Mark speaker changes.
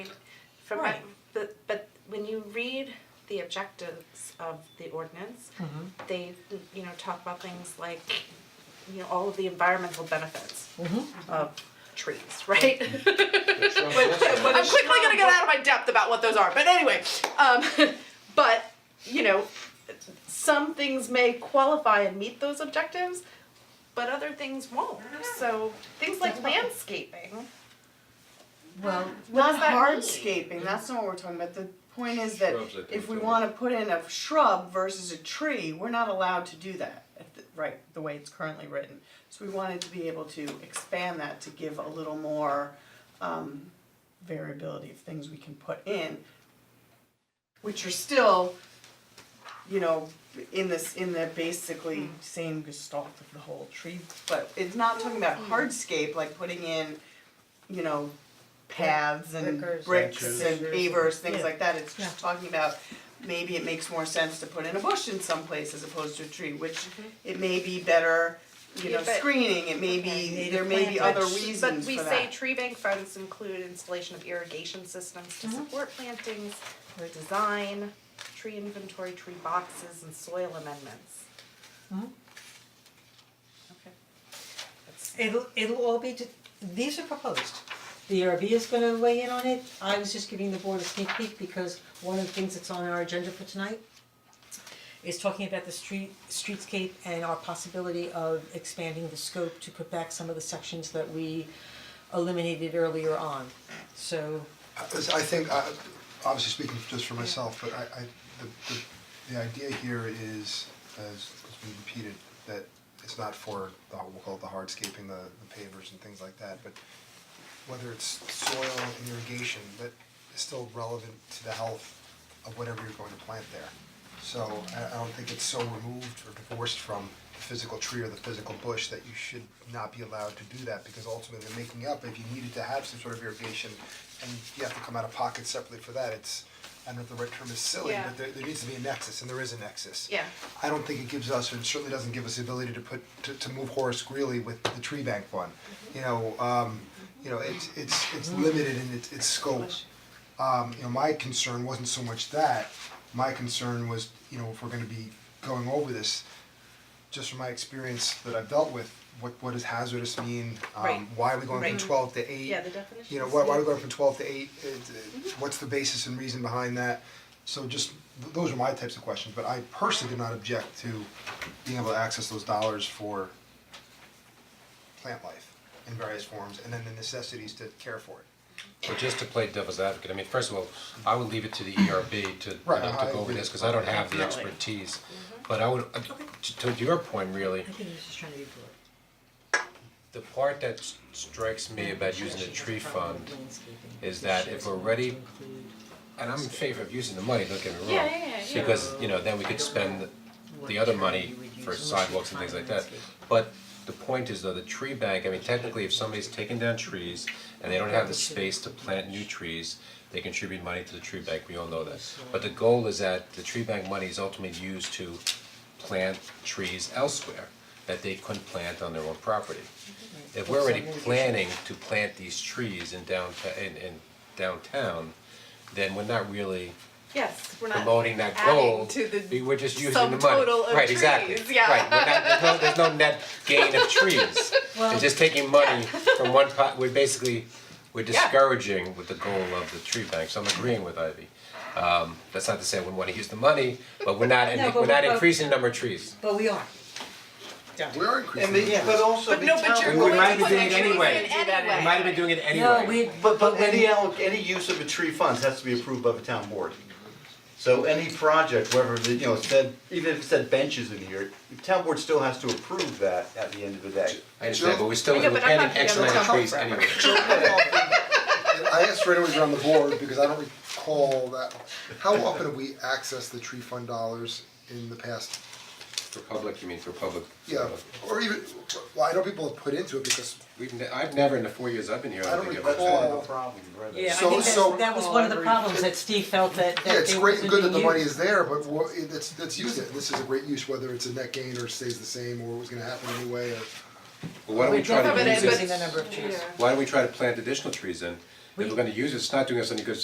Speaker 1: from
Speaker 2: Right.
Speaker 1: but but when you read the objectives of the ordinance, they you know talk about things like you know all of the environmental benefits of trees, right? I'm quickly gonna get out of my depth about what those are, but anyway, um, but you know, some things may qualify and meet those objectives, but other things won't. So things like landscaping,
Speaker 2: Well,
Speaker 3: Not
Speaker 1: does that mean?
Speaker 3: hardscaping, that's not what we're talking about, the point is that
Speaker 4: Shrubs, I think,
Speaker 3: if we
Speaker 4: so.
Speaker 3: wanna put in a shrub versus a tree, we're not allowed to do that, at the- right, the way it's currently written. So we wanted to be able to expand that to give a little more um variability of things we can put in. Which are still, you know, in this, in the basically same gestalt of the whole tree, but it's not talking about hardscape, like putting in, you know, paths and
Speaker 2: Brickers.
Speaker 3: bricks
Speaker 4: Benches.
Speaker 3: and pavers, things
Speaker 2: Yeah.
Speaker 3: like that, it's just talking about maybe it makes more sense to put in a bush in some place as opposed to a tree, which it may be better, you
Speaker 1: Yeah,
Speaker 3: know,
Speaker 1: but-
Speaker 3: screening, it may be,
Speaker 2: Native
Speaker 3: there may be
Speaker 2: plant
Speaker 3: other
Speaker 2: touch.
Speaker 3: reasons for
Speaker 1: But
Speaker 3: that.
Speaker 1: we say tree bank funds include installation of irrigation systems to support plantings, or design, tree inventory, tree boxes, and soil amendments. Okay. That's-
Speaker 2: it'll, it'll all be, de- these are proposed. The ERB is gonna weigh in on it, I was just giving the board a sneak peek because one of the things that's on our agenda for tonight is talking about the street, streetscape and our possibility of expanding the scope to put back some of the sections that we eliminated earlier on. So,
Speaker 5: I I think, I- obviously speaking just for myself, but I I, the the the idea here is, as has been repeated, that it's not for the, we'll call it the hardscaping, the the pavers and things like that, but whether it's soil and irrigation, that is still relevant to the health of whatever you're going to plant there. So I I don't think it's so removed or divorced from the physical tree or the physical bush that you should not be allowed to do that because ultimately they're making up, if you needed to have some sort of irrigation and you have to come out of pocket separately for that, it's, I don't know if the right term is silly,
Speaker 1: Yeah.
Speaker 5: but there there needs to be a nexus and there is a nexus.
Speaker 1: Yeah.
Speaker 5: I don't think it gives us, and certainly doesn't give us the ability to put, to to move Horace Greeley with the tree bank fund.
Speaker 1: Mm-hmm.
Speaker 5: You know, um, you know, it's it's it's limited in its its scope. Um, you know, my concern wasn't so much that, my concern was, you know, if we're gonna be going over this, just from my experience that I've dealt with, what what does hazardous mean?
Speaker 1: Right.
Speaker 5: Um, why are we going
Speaker 1: Right.
Speaker 5: from twelve to eight?
Speaker 1: Yeah, the definition.
Speaker 5: you know, why why are we going from twelve to eight, It's, uh, what's the basis and reason behind that? So just, th- those are my types of questions, but I personally do not object to being able to access those dollars for plant life in various forms, and then the necessities to care for it.
Speaker 4: But just to play devil's advocate, I mean, first of all, I would leave it to the ERB to, you know,
Speaker 5: Right,
Speaker 4: to
Speaker 5: I
Speaker 4: go over
Speaker 5: agree.
Speaker 4: this, cause I don't have the
Speaker 3: Definitely.
Speaker 4: expertise. But I would, uh, to to your point really,
Speaker 2: I think he's just trying to be broad.
Speaker 4: the part that s- strikes me about using the tree fund, is
Speaker 2: Landscaping.
Speaker 4: that if we're ready- and I'm in favor of using the money, don't get me wrong. Because, you know, then we could spend the other money for sidewalks and things like that. But the point is though, the tree bank, I mean technically if somebody's taking down trees and they don't have the space to plant new trees, they contribute money to the tree bank, we all know that. But the goal is that the tree bank money is ultimately used to plant trees elsewhere that they couldn't plant on their own property. If we're already planning to plant these trees in downtown, in in downtown, then we're not really
Speaker 1: Yes, we're not
Speaker 4: promoting that
Speaker 1: adding
Speaker 4: goal,
Speaker 1: to the
Speaker 4: we were just using the money.
Speaker 1: subtotal of
Speaker 4: Right, exactly,
Speaker 1: trees, yeah.
Speaker 4: right, we're not, there's no, there's no net gain of trees.
Speaker 2: Well-
Speaker 4: It's just taking money from one pot, we're basically, we're
Speaker 1: Yeah.
Speaker 4: discouraging with the goal of the tree bank, so I'm agreeing with Ivy. Um, that's not to say I wouldn't wanna use the money, but we're not,
Speaker 2: No, but
Speaker 4: we're not
Speaker 2: we- but-
Speaker 4: increasing the number of trees.
Speaker 2: But we are,
Speaker 5: We are
Speaker 6: And
Speaker 5: increasing.
Speaker 6: they, but also
Speaker 1: But
Speaker 6: the
Speaker 1: no, but
Speaker 6: town-
Speaker 1: you're
Speaker 4: We
Speaker 1: going
Speaker 4: might
Speaker 1: to
Speaker 4: be
Speaker 1: put
Speaker 4: doing
Speaker 1: the
Speaker 4: it
Speaker 1: trees in
Speaker 4: anyway.
Speaker 1: anyway.
Speaker 4: We might have been doing it anyway.
Speaker 2: no, we,
Speaker 6: But but any alloc, any use of a tree funds has to be approved by the town board. So any project, whether, the- you know, it said, even if it said benches in here, the town board still has to approve that at the end of the day.
Speaker 4: I understand, but we still,
Speaker 1: Yeah,
Speaker 4: we're
Speaker 1: but I'm not
Speaker 4: planting X
Speaker 1: gonna
Speaker 4: amount of
Speaker 1: tell
Speaker 4: trees
Speaker 1: them.
Speaker 4: anyway.
Speaker 5: I asked for anyone on the board because I don't recall that, how often have we accessed the tree fund dollars in the past
Speaker 4: For public, you mean, for public.
Speaker 5: Yeah, or even, well, I know people have put into it because,
Speaker 4: We've, ne- I've never, in the four years I've been here, I
Speaker 5: I
Speaker 4: don't
Speaker 5: don't
Speaker 4: think I've ever.
Speaker 5: recall
Speaker 4: found-
Speaker 6: problem, right?
Speaker 2: yeah, I
Speaker 5: So-
Speaker 2: think that's,
Speaker 5: so-
Speaker 2: that was one of the problems that Steve felt that, that
Speaker 5: yeah, it's
Speaker 2: they
Speaker 5: great and
Speaker 2: wasn't
Speaker 5: good that the
Speaker 2: being
Speaker 5: money
Speaker 2: used.
Speaker 5: is there, but wha- it's, it's used it, this is a great use, whether it's a net gain or stays the same, or what's gonna happen anyway, or.
Speaker 4: But why don't we try
Speaker 1: But
Speaker 4: to
Speaker 1: it-
Speaker 4: use
Speaker 1: but-
Speaker 4: this,
Speaker 2: Using the number of trees.
Speaker 1: Yeah.
Speaker 4: why don't we try to plant additional trees in? If we're gonna use it, it's not doing us any good